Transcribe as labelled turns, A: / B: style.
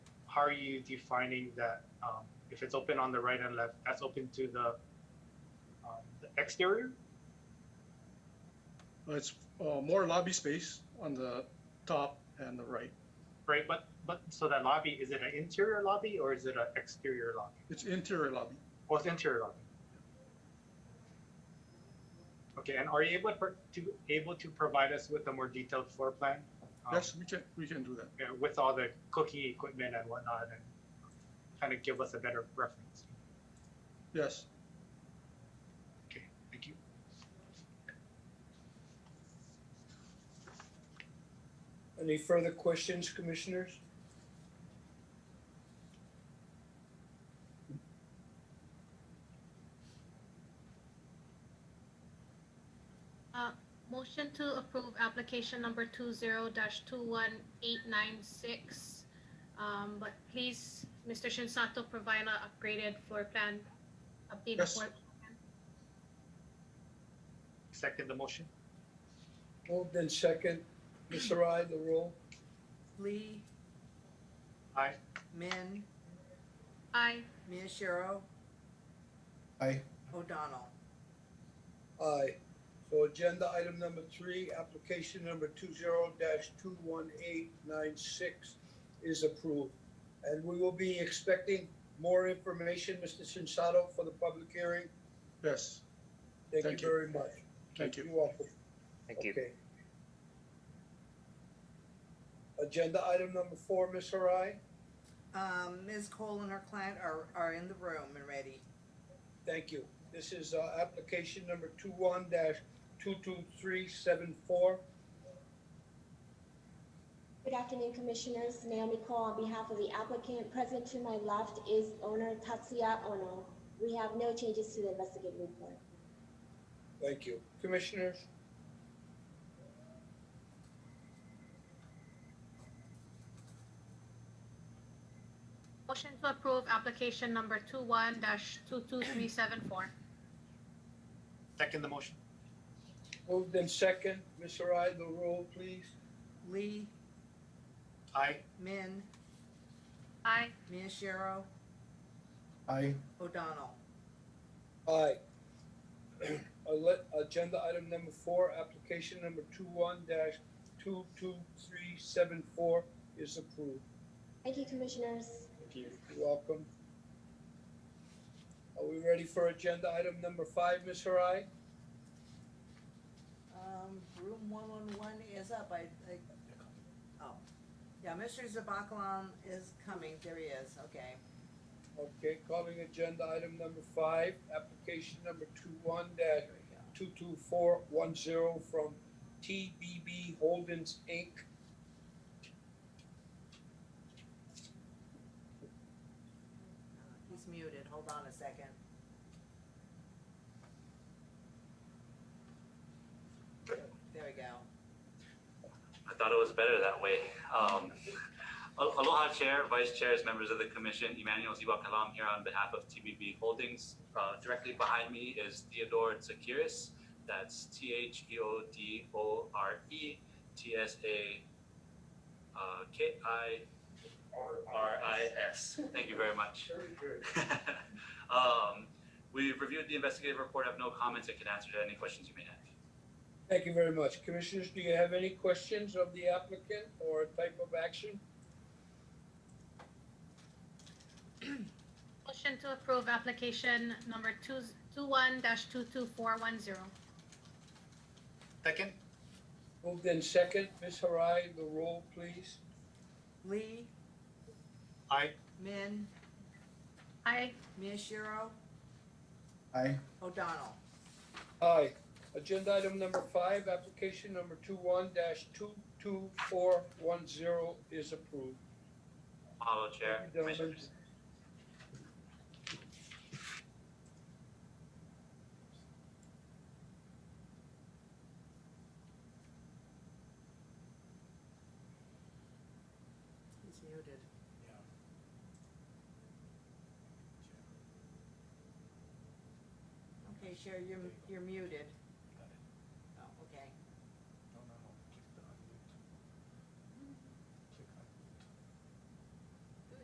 A: how are you defining that, um, if it's open on the right and left, that's open to the, um, the exterior?
B: It's uh, more lobby space on the top and the right.
A: Right, but, but, so that lobby, is it an interior lobby or is it an exterior lobby?
B: It's interior lobby.
A: Oh, it's interior lobby. Okay, and are you able per- to, able to provide us with a more detailed floor plan? um,
B: Yes, we can, we can do that.
A: you know, with all the cooking equipment and whatnot and kind of give us a better reference.
B: Yes.
A: Okay, thank you.
C: Any further questions, commissioners?
D: Uh, Motion to approve application number two zero dash two one eight nine six. Um, but please, Mr. Shinsato, provide a upgraded floor plan, updated
B: Yes.
D: floor.
A: Second the motion?
C: Moved in second. Ms. Sarai, the roll?
E: Lee,
A: Aye.
E: Min,
D: I,
E: Miyashiro.
C: Aye.
E: O'Donnell.
C: Aye. So agenda item number three, application number two zero dash two one eight nine six is approved. And we will be expecting more information, Mr. Sensato, for the public hearing.
B: Yes.
C: Thank
B: Thank
C: you
B: you.
C: very much.
B: Thank you.
C: You're welcome.
F: Thank you.
C: Okay. Agenda item number four, Ms. Harai.
E: Um, Ms. Cole and her client are, are in the room and ready.
C: Thank you. This is uh, application number two one dash two two three seven four.
G: Good afternoon, Commissioners. Naomi Cole on behalf of the applicant. Present to my left is owner Tatsuya Ono. We have no changes to the investigative report.
C: Thank you. Commissioners?
D: motion to approve application number two one dash two two three seven four.
A: Second the motion?
C: Moved in second. Ms. Harai, the roll, please.
E: Lee,
A: Aye.
E: Min,
D: I,
E: Miyashiro.
C: Aye.
E: O'Donnell.
C: Aye. Ale- Agenda item number four, application number two one dash two two three seven four is approved.
G: Thank you, Commissioners.
A: Thank you.
C: You're welcome. Are we ready for agenda item number five, Ms. Harai?
E: Um, room one one one is up, I, I, oh. Yeah, Mr. Zabakalan is coming, there he is, okay.
C: Okay, calling agenda item number five, application number two one dash
E: There we go.
C: two two four one zero from TBB Holdings Inc.
E: Uh, He's muted, hold on a second. There we go.
H: I thought it was better that way. Um, Al- Aloha Chair, Vice Chairs, members of the Commission, Emmanuel Ziwa Kalam here on behalf of TBB Holdings. Uh, directly behind me is Theodore Tsakiris. That's T H E O D O R E T S A uh, K I R I S. Thank you very much. um, we've reviewed the investigative report. I have no comments and can answer to any questions you may have.
C: Thank you very much. Commissioners, do you have any questions of the applicant or type of action?
D: motion to approve application number two, two one dash two two four one zero.
A: Second?
C: Moved in second, Ms. Harai, the roll, please.
E: Lee,
A: Aye.
E: Min,
D: I,
E: Miyashiro.
C: Aye.
E: O'Donnell.
C: Aye. Agenda item number five, application number two one dash two two four one zero is approved.
H: Mahalo, Chair,
C: Thank you, gentlemen.
H: Commissioners.
E: He's muted. Okay, Sherry, you're, you're muted. Oh,